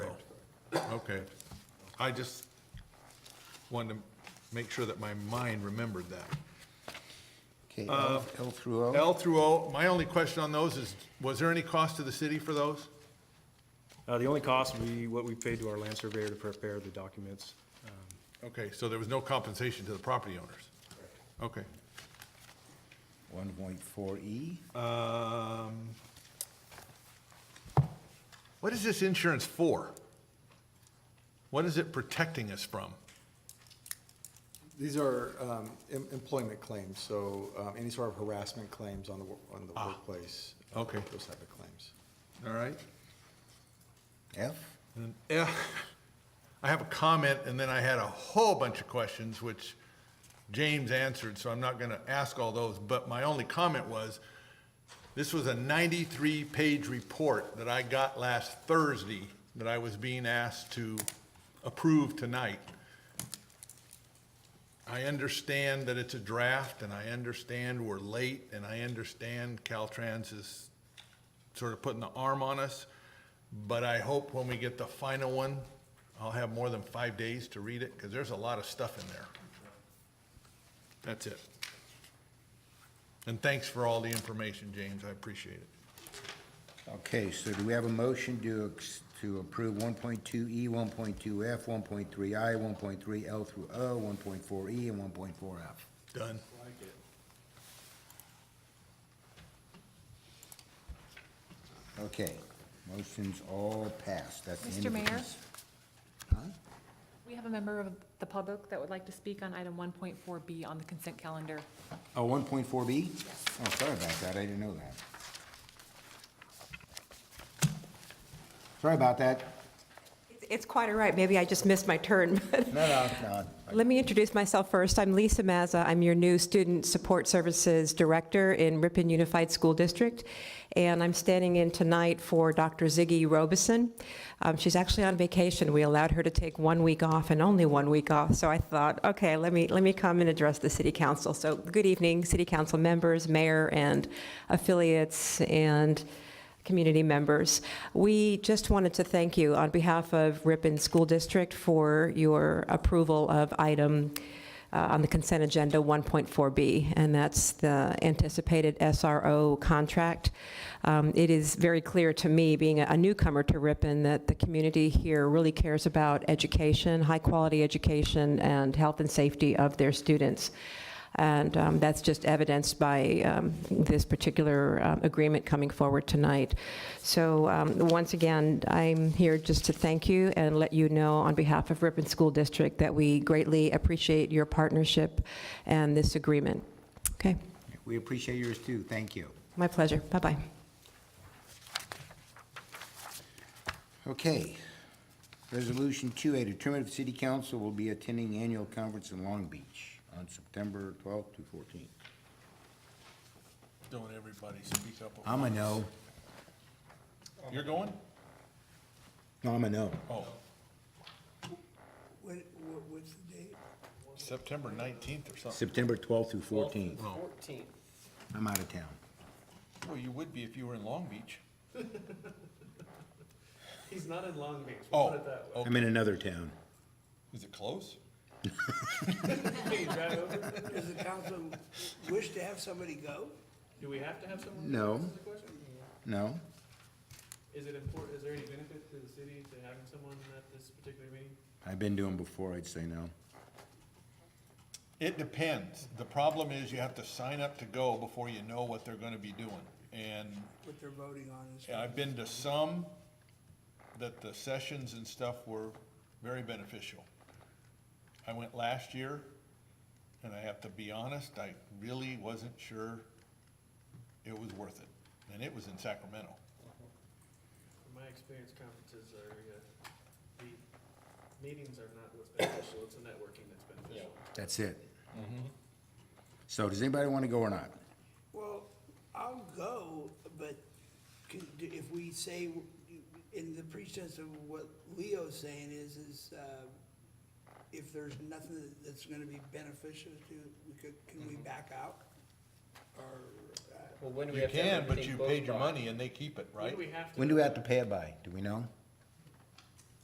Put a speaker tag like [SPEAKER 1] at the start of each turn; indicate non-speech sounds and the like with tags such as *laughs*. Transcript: [SPEAKER 1] Okay. I just wanted to make sure that my mind remembered that.
[SPEAKER 2] Okay, L L through O?
[SPEAKER 1] L through O, my only question on those is, was there any cost to the city for those?
[SPEAKER 3] Uh, The only cost would be what we paid to our land surveyor to prepare the documents.
[SPEAKER 1] Okay, so there was no compensation to the property owners? Okay.
[SPEAKER 2] 1.4E?
[SPEAKER 1] Um, What is this insurance for? What is it protecting us from?
[SPEAKER 4] These are um, em- employment claims, so um, any sort of harassment claims on the, wo- on the workplace. uh,
[SPEAKER 1] okay.
[SPEAKER 4] Those type of claims.
[SPEAKER 1] All right?
[SPEAKER 2] F?
[SPEAKER 1] Yeah, I have a comment, and then I had a whole bunch of questions, which James answered, so I'm not gonna ask all those, but my only comment was, this was a ninety-three page report that I got last Thursday that I was being asked to approve tonight. I understand that it's a draft, and I understand we're late, and I understand Caltrans is sort of putting the arm on us, but I hope when we get the final one, I'll have more than five days to read it, because there's a lot of stuff in there. That's it. And thanks for all the information, James, I appreciate it.
[SPEAKER 2] Okay, so do we have a motion to, ex- to approve 1.2E, 1.2F, 1.3I, 1.3L through O, 1.4E, E, and 1.4F?
[SPEAKER 1] Done.
[SPEAKER 2] Okay, motions all passed, that's the end
[SPEAKER 5] Mr.
[SPEAKER 2] of
[SPEAKER 5] Mayor?
[SPEAKER 2] business.
[SPEAKER 5] We have a member of the public that would like to speak on item 1.4B on the consent calendar.
[SPEAKER 2] Oh, 1.4B? Oh, sorry about that, I didn't know that. Sorry about that.
[SPEAKER 6] It's quite all right. Maybe I just missed my turn. *laughs* but-
[SPEAKER 2] No, no, no.
[SPEAKER 6] Let me introduce myself first. I'm Lisa Mazza. I'm your new Student Support Services Director in Ripon Unified School District. And I'm standing in tonight for Dr. Ziggy Robeson. Um, She's actually on vacation. We allowed her to take one week off and only one week off. So I thought, okay, let me, let me come and address the city council. So good evening, city council members, mayor, and affiliates, and community members. We just wanted to thank you on behalf of Ripon School District for your approval of item uh, on the consent agenda 1.4B, and that's the anticipated SRO contract. Um, It is very clear to me, being a newcomer to Ripon, that the community here really cares about education, high-quality education, and health and safety of their students. And um, that's just evidenced by um, this particular um, agreement coming forward tonight. So um, once again, I'm here just to thank you and let you know on behalf of Ripon School District that we greatly appreciate your partnership and this agreement. Okay,
[SPEAKER 2] We appreciate yours too, thank you.
[SPEAKER 6] my pleasure. Bye-bye.
[SPEAKER 2] Okay. Resolution 2A, determine if city council will be attending annual conference in Long Beach on September 12th to 14th.
[SPEAKER 1] Don't everybody speak up. at
[SPEAKER 2] I'm a no.
[SPEAKER 1] once. You're going?
[SPEAKER 2] No, I'm a no.
[SPEAKER 1] Oh,
[SPEAKER 7] What, what, what's the date?
[SPEAKER 1] September nineteenth or something.
[SPEAKER 2] September 12th through 14th.
[SPEAKER 1] Oh.
[SPEAKER 2] I'm out of town.
[SPEAKER 1] Well, you would be if you were in Long Beach.
[SPEAKER 8] He's not in Long Beach, we'll
[SPEAKER 1] Oh,
[SPEAKER 8] put it that way.
[SPEAKER 1] oh,
[SPEAKER 2] I'm in another town.
[SPEAKER 1] is it close?
[SPEAKER 8] Can you drive over?
[SPEAKER 7] Does the council wish to have somebody go?
[SPEAKER 8] Do we have to have someone?
[SPEAKER 2] No.
[SPEAKER 8] That's the question.
[SPEAKER 2] No?
[SPEAKER 8] Is it important, is there any benefit to the city to having someone at this particular meeting?
[SPEAKER 2] I've been doing before, I'd say no.
[SPEAKER 1] It depends. The problem is you have to sign up to go before you know what they're gonna be doing. And
[SPEAKER 7] What they're voting on is.
[SPEAKER 1] Yeah, I've been to some that the sessions and stuff were very beneficial. I went last year, and I have to be honest, I really wasn't sure it was worth it. And it was in Sacramento.
[SPEAKER 8] From my experience, conferences are, uh, the meetings are not what's beneficial, it's the networking that's beneficial.
[SPEAKER 2] That's it. So does anybody want to go or not?
[SPEAKER 7] Well, I'll go, but can- do- if we say, in the pretense of what Leo's saying is, is, uh, if there's nothing that's gonna be beneficial to, we could, can
[SPEAKER 1] Mm-hmm.
[SPEAKER 7] we back out? Or, uh,
[SPEAKER 9] Well, when do we
[SPEAKER 1] You
[SPEAKER 9] have to have
[SPEAKER 1] can, but
[SPEAKER 9] everything
[SPEAKER 1] you
[SPEAKER 9] closed
[SPEAKER 1] paid your
[SPEAKER 9] by?
[SPEAKER 1] money and they keep it,
[SPEAKER 8] When
[SPEAKER 1] right?
[SPEAKER 8] do we have to?
[SPEAKER 2] When do we have to pay it by? Do we know?